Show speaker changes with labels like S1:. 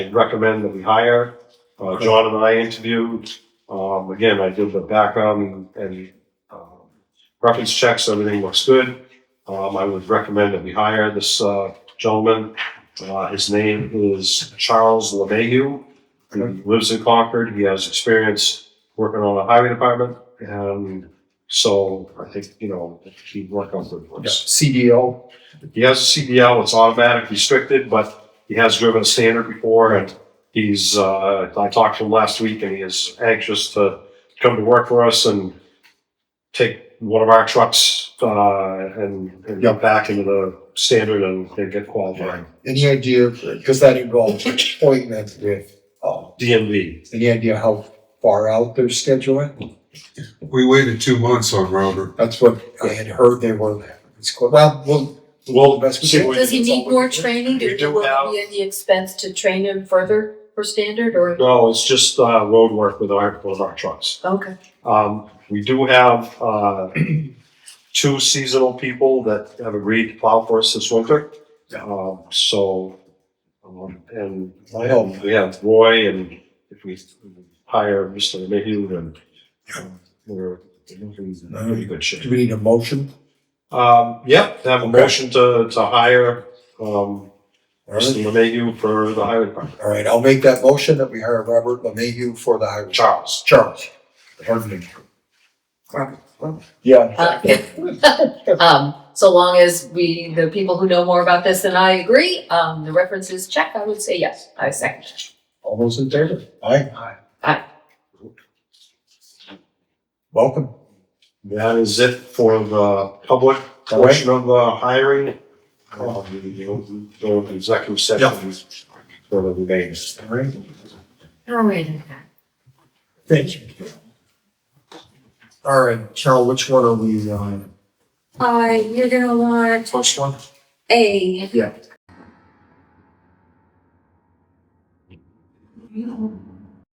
S1: and recommend that we hire. Uh, John and I interviewed, um, again, I did the background and, um, reference checks, everything looks good. Um, I would recommend that we hire this, uh, gentleman. Uh, his name is Charles LeMahieu. He lives in Concord. He has experience working on the highway department. And so I think, you know, he'd work on good ones.
S2: CDL.
S1: He has a CDL, it's automatic restricted, but he has driven a standard before and he's, uh, I talked to him last week and he is anxious to come to work for us and take one of our trucks, uh, and, and
S2: Yeah.
S1: get back into the standard and, and get qualified.
S2: Any idea, because that involves appointment with, um,
S1: DMV.
S2: any idea how far out they're scheduling?
S3: We waited two months on Robert.
S2: That's what I had heard they were, it's, called- well, well,
S1: Well,
S2: Best we
S1: see
S2: can.
S1: what-
S4: Does he need more training?
S1: We
S4: Do
S1: do
S4: you want
S1: have-
S4: to be at the expense to train him further for standard or?
S1: No, it's just, uh, road work with our, with our trucks.
S4: Okay,
S1: Um, we do have, uh, two seasonal people that have agreed to plow for us this winter.
S2: Yeah.
S1: Um, so, um, and
S2: I hope.
S1: we have Roy and if we hire Mr. Mayhew, then um, we're looking in pretty good
S2: Do
S1: shape.
S2: we need a motion?
S1: Um, yeah, have a
S2: Okay.
S1: motion to, to hire, um,
S2: All right.
S1: Mr. Mayhew for the highway department.
S2: All right, I'll make that motion that we hire Robert LeMahieu for the highway.
S1: Charles.
S2: Charles. Harding. Yeah.
S4: Uh, um, so long as we, the people who know more about this than I agree, um, the references check, I would say yes, I second.
S2: All those in favor? Aye.
S1: Aye.
S4: Aye.
S2: Welcome.
S1: That is it for the public portion of the hiring. Um, We'll go to executive session for the remainder.
S2: All right.
S4: All right.
S2: Thank you. All right, Carol, which one are we on?
S4: Uh, you're gonna want
S2: First one?
S4: a.
S2: Yeah.